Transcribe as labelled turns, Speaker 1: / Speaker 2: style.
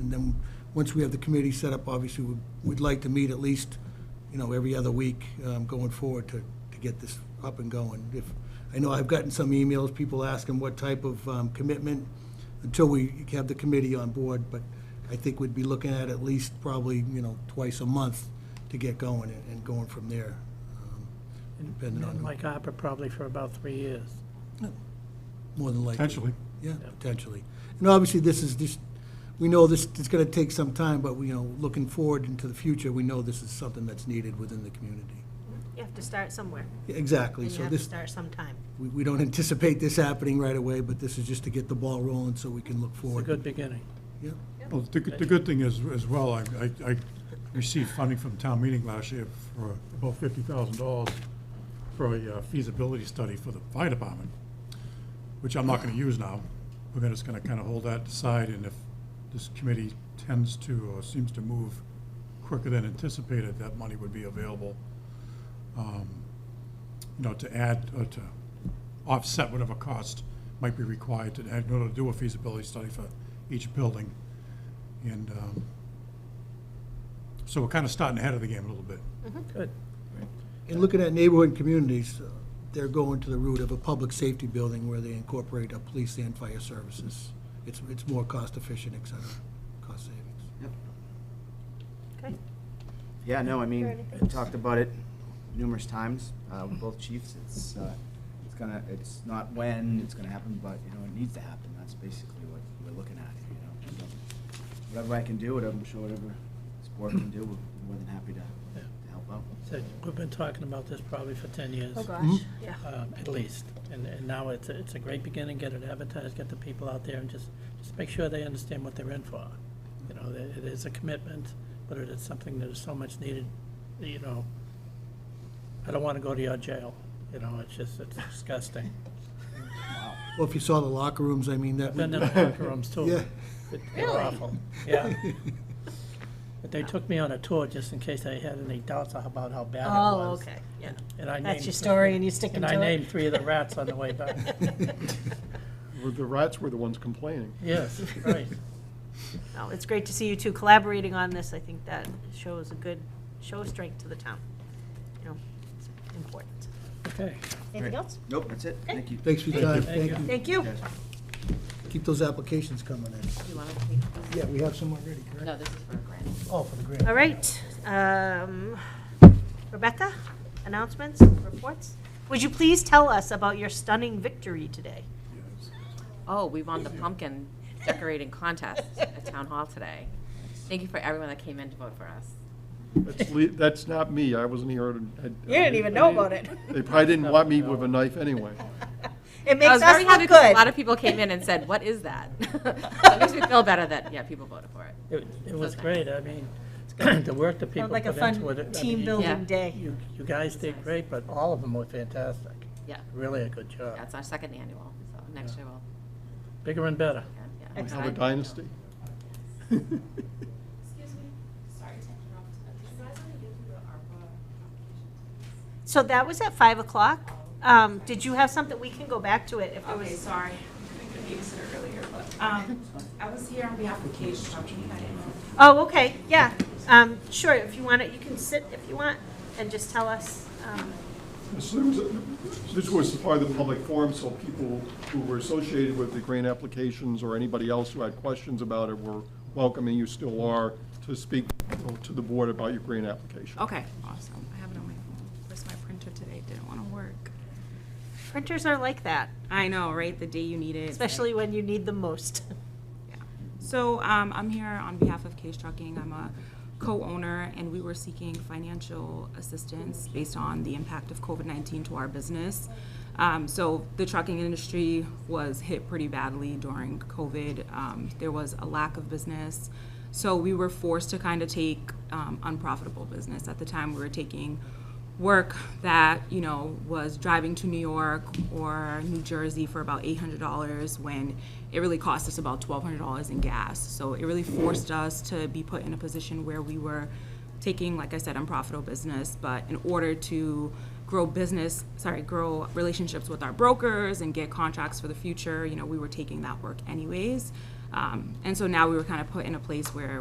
Speaker 1: and then, once we have the committee set up, obviously, we'd- we'd like to meet at least, you know, every other week um, going forward to, to get this up and going. If, I know I've gotten some emails, people asking what type of um, commitment, until we have the committee on board, but I think we'd be looking at at least probably, you know, twice a month to get going and- and going from there. um, Depending
Speaker 2: And
Speaker 1: on,
Speaker 2: Like ARPA probably for about three years.
Speaker 1: more than likely.
Speaker 3: potentially.
Speaker 1: Yeah, potentially. And obviously, this is, this, we know this is gonna take some time, but, we, you know, looking forward into the future, we know this is something that's needed within the community.
Speaker 4: You have to start somewhere,
Speaker 1: Yeah, Exactly,
Speaker 4: and you
Speaker 1: so
Speaker 4: have to
Speaker 1: this,
Speaker 4: start sometime.
Speaker 1: we, we don't anticipate this happening right away, but this is just to get the ball rolling so we can look
Speaker 2: It's a
Speaker 1: forward.
Speaker 2: good beginning.
Speaker 1: Yeah,
Speaker 3: Well, the, good- the good thing is, as well, I, I- I received funding from town meeting last year for about fifty thousand dollars for a uh, feasibility study for the fire department, which I'm not gonna use now. We're gonna, just gonna kinda hold that aside, and if this committee tends to, or seems to move quicker than anticipated, that money would be available, um, you know, to add, or to offset whatever cost might be required to, in order to do a feasibility study for each building. And um, so we're kind of starting ahead of the game a little bit.
Speaker 2: Good.
Speaker 1: And looking at neighborhood and communities, uh, they're going to the route of a public safety building where they incorporate a police and fire services. It's, it's more cost efficient, et cetera, cost savings.
Speaker 4: Okay.
Speaker 5: Yeah, no, I mean,
Speaker 4: anything
Speaker 5: I talked about it numerous times, uh, with both chiefs, it's, uh, it's gonna, it's not when it's gonna happen, but, you know, it needs to happen, that's basically what we're looking at, you know. And, um, Whatever I can do, whatever, I'm sure whatever this board can do, we're more than happy to, to help out.
Speaker 2: So we've been talking about this probably for ten years.
Speaker 4: Oh, gosh, yeah.
Speaker 2: um, At least. And, and now it's, a- it's a great beginning, get it advertised, get the people out there and just, just make sure they understand what they're in for. You know, it it is a commitment, but it is something that is so much needed, you know. I don't want to go to your jail, you know, it's just, it's disgusting.
Speaker 1: Well, if you saw the locker rooms, I mean, that,
Speaker 2: Been in
Speaker 1: would-
Speaker 2: the locker rooms too.
Speaker 1: Yeah.
Speaker 2: It- They're awful, yeah. But they took me on a tour just in case I had any doubts about how bad it was.
Speaker 4: Oh, okay, yeah.
Speaker 2: And I
Speaker 4: That's
Speaker 2: named
Speaker 4: your
Speaker 2: three-
Speaker 4: story, and you stick
Speaker 2: And
Speaker 4: to it?
Speaker 2: I named three of the rats on the way back.
Speaker 6: Well, The rats were the ones complaining.
Speaker 2: Yes, right.
Speaker 4: No, it's great to see you two collaborating on this. I think that shows a good, show of strength to the town. You know, it's important.
Speaker 2: Okay,
Speaker 4: Anything else?
Speaker 5: Nope, that's it, thank you.
Speaker 1: thanks for your time, thank
Speaker 2: Thank you.
Speaker 1: you.
Speaker 4: Thank you.
Speaker 5: Yes.
Speaker 1: Keep those applications coming in.
Speaker 4: You wanna take-
Speaker 1: Yeah, we have some already, correct?
Speaker 7: No, this is for a grant.
Speaker 1: Oh, for the grant.
Speaker 4: All right, um, Rebecca, announcements, reports? Would you please tell us about your stunning victory today?
Speaker 7: Oh, we won the pumpkin decorating contest at Town Hall today. Thank you for everyone that came in to vote for us.
Speaker 6: That's, le- that's not me, I wasn't here. You
Speaker 4: didn't even know about it.
Speaker 6: They probably didn't want me with a knife anyway.
Speaker 4: It
Speaker 7: I was
Speaker 4: makes
Speaker 7: very
Speaker 4: us
Speaker 7: happy
Speaker 4: look
Speaker 7: because a lot
Speaker 4: good.
Speaker 7: of people came in and said, what is that? So It makes me feel better that, yeah, people voted for it.
Speaker 2: it, it was
Speaker 7: Okay.
Speaker 2: great, I mean, the work that people put
Speaker 4: Sounds Like
Speaker 2: into
Speaker 4: a
Speaker 2: it. I mean,
Speaker 4: fun
Speaker 2: you-
Speaker 4: team
Speaker 7: Yeah.
Speaker 4: building day.
Speaker 2: You, you guys did great, but all of them were fantastic,
Speaker 7: Yeah,
Speaker 2: really a good job,
Speaker 7: that's our second annual, so next year we'll,
Speaker 2: bigger and better.
Speaker 7: yeah, yeah.
Speaker 4: Excellent.
Speaker 6: Have a dynasty.
Speaker 8: Excuse me, sorry to interrupt. Do you guys want to go through the ARPA applications?
Speaker 4: So that was at five o'clock. Um, did you have something, we can go back to it if there
Speaker 8: Okay,
Speaker 4: was,
Speaker 8: sorry. I could use it earlier, but, um, I was here on behalf of Cage Trucking. I didn't know.
Speaker 4: oh, okay, yeah. Um, sure, if you want it, you can sit if you want and just tell us. um,
Speaker 6: This was- this was part of the public forum, so people who were associated with the grant applications or anybody else who had questions about it were welcome, and you still are, to speak to the board about your grant application.
Speaker 9: Okay, awesome. I have it on my phone. Where's my printer today? Didn't want to work.
Speaker 4: Printers are like that,
Speaker 9: I know, right? The day you need it. it's like-
Speaker 4: especially when you need them most.
Speaker 9: So um, I'm here on behalf of Case Trucking. I'm a co-owner, and we were seeking financial assistance based on the impact of COVID-19 to our business. Um, so the trucking industry was hit pretty badly during COVID. Um, there was a lack of business, so we were forced to kind of take um, unprofitable business. At the time, we were taking work that you know was driving to New York or New Jersey for about eight hundred dollars when it really cost us about twelve hundred dollars in gas. So it really forced us to be put in a position where we were taking, like I said, unprofitable business, but in order to grow business, sorry, grow relationships with our brokers and get contracts for the future, you know, we were taking that work anyways. Um, And so now we were kind of put in a place where